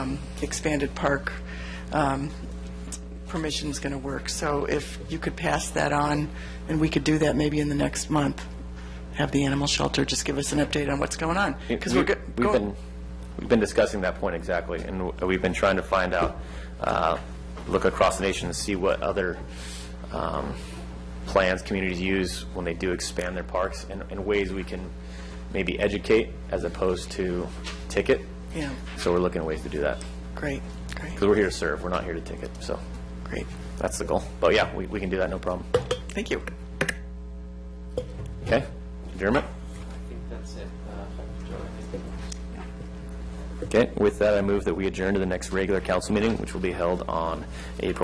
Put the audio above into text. um, expanded park um, permission's going to work. So if you could pass that on, and we could do that maybe in the next month, have the animal shelter just give us an update on what's going on. Because we're, We- go- We've go- been, we've been discussing that point exactly, and w- we've been trying to find out, uh, look across the nation and see what other um, plans communities use when they do expand their parks, and and ways we can maybe educate as opposed to ticket. Yeah. So we're looking at ways to do that, great, great, because we're here to serve, we're not here to ticket, so great. that's the goal. But yeah, we we can do that, no problem. Thank you. Okay? Adjournment? Okay, with that, I move that we adjourn to the next regular council meeting, which will be held on April